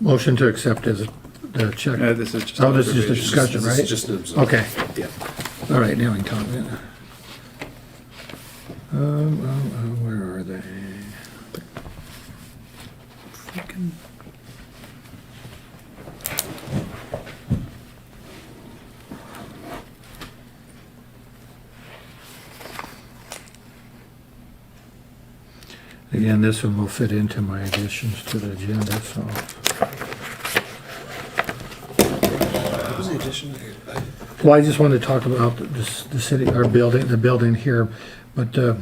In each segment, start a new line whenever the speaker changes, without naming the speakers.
Motion to accept as a check.
No, Uh, this is just.
Oh, this is just a
observation.
discussion,
Uh, This is
right?
just an observation.
Okay,
Yeah.
all right, now we can talk about it. Um, um, um, where are they? Freaking- Again, this one will fit into my additions to the agenda, so.
What was the addition? I- I-
Well, I just wanted to talk about this, the city, our building, the building here, but, uh,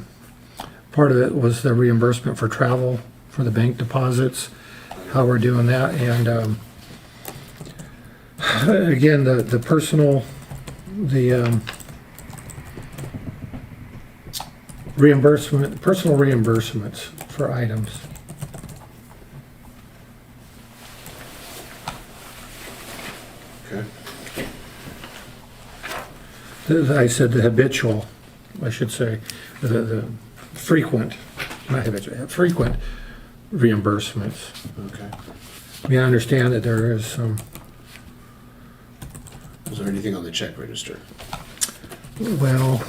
part of it was the reimbursement for travel, for the bank deposits, how we're doing that, and, um, again, the, the personal, the, um, reimbursement, personal reimbursements for items.
Okay.
As I said the habitual, I should say, the, the frequent, not habitual, frequent reimbursements.
Okay.
I mean, I understand that there is some,
Was there anything on the check register?
well,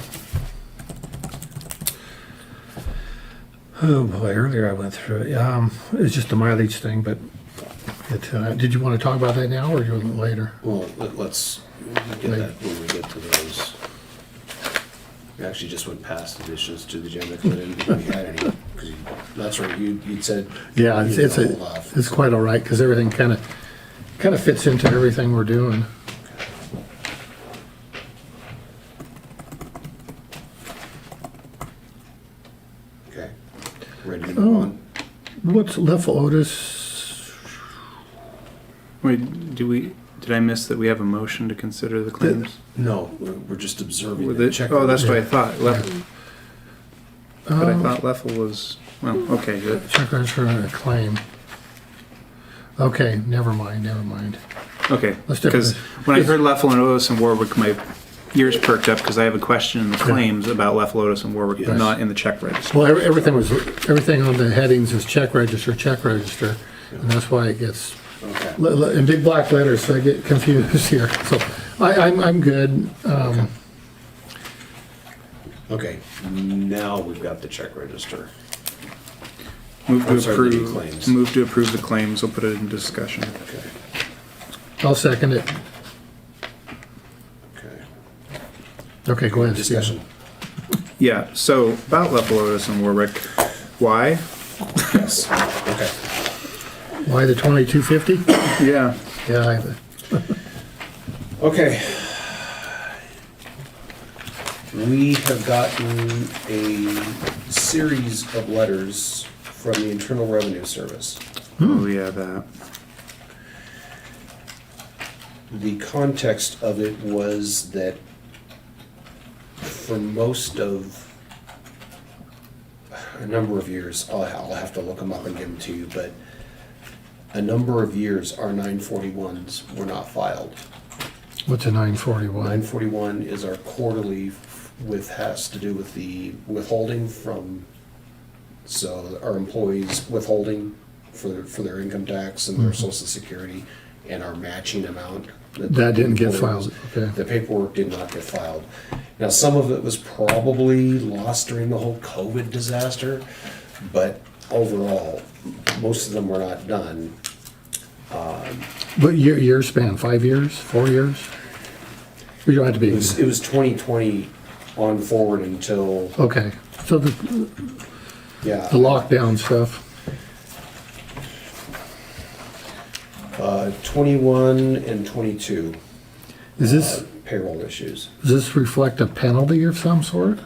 oh boy, earlier I went through it. Um, it's just the mileage thing, but it, uh, did you want to talk about that now or you want it later?
Well, let- let's get that when we get to those. We actually just went past additions to the agenda because I didn't think we had any. 'Cause you- That's right, you, you'd said.
Yeah, it's,
you
it's,
hold
a-
off.
it's quite all right, because everything kind of, kind of fits into everything we're doing.
Okay. Ready to
Oh.
move on?
What's left Otis?
Wait, do we, did I miss that we have a motion to consider the claims?
No, we're we're just observing
With
the
it,
check.
oh, that's what I
register.
thought, Leffel, but
Oh. um,
I thought Leffel was, well, okay, good.
Check register and a claim. Okay, never mind, never mind.
Okay,
Let's do it.
because when I heard Leffel and Otis and Warwick, my ears perked up because I have a question in the claims about Leffel, Otis and Warwick, but
Yes.
not in the check register.
Well, ev- everything was, everything on the headings is check register, check register, and that's why it gets,
Okay.
le- le- in big black letters, so I get confused here. So I, I'm, I'm good. Um,
Okay, now we've got the check register.
Move
I'm
to
sorry, the claims.
approve, move to approve the claims, we'll put it in discussion.
Okay,
I'll second it.
okay.
Okay, go ahead. Steve.
Discussion.
Yeah, so about Leffel, Otis and Warwick, why?
Yes, okay.
Why the twenty-two fifty?
Yeah,
Yeah,
Okay. We have gotten a series of letters from the Internal Revenue Service.
oh yeah, that,
The context of it was that for most of a number of years, I'll, I'll have to look them up and give them to you, but a number of years, our 941s were not filed.
I- what's a nine forty-one?
941 is our quarterly with, has to do with the withholding from, so our employees withholding for, their- for their income tax
Mm-hmm.
and their social security and our matching amount.
That didn't get
employers-
filed, okay.
The paperwork did not get filed. Now, some of it was probably lost during the whole COVID disaster, but overall, most of them were not done.
What year, year span, five years, four years? You don't have to
It
be,
was, it was 2020 on forward until,
okay. So the,
yeah.
the lockdown stuff.
Uh, 21 and 22
Is this,
payroll issues.
does this reflect a penalty of some sort?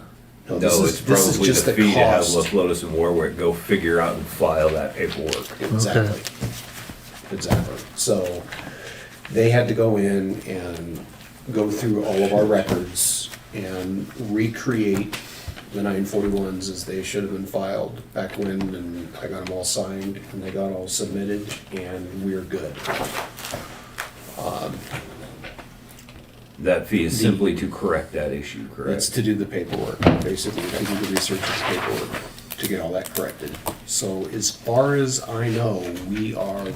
this
No,
is-
it's
this is
probably
just
the fee to have
cost.
Los Lotus and Warwick go figure out and file that paperwork.
Exactly. Exactly. So they had to go in and go through all of our records and recreate the 941s as they should have been filed back when, and I got them all signed, and they got all submitted, and we're good.
That fee is simply to correct that issue,
That's
correct?
to do the paperwork, basically, to do the research of the paperwork, to get all that corrected. So as far as I know, we are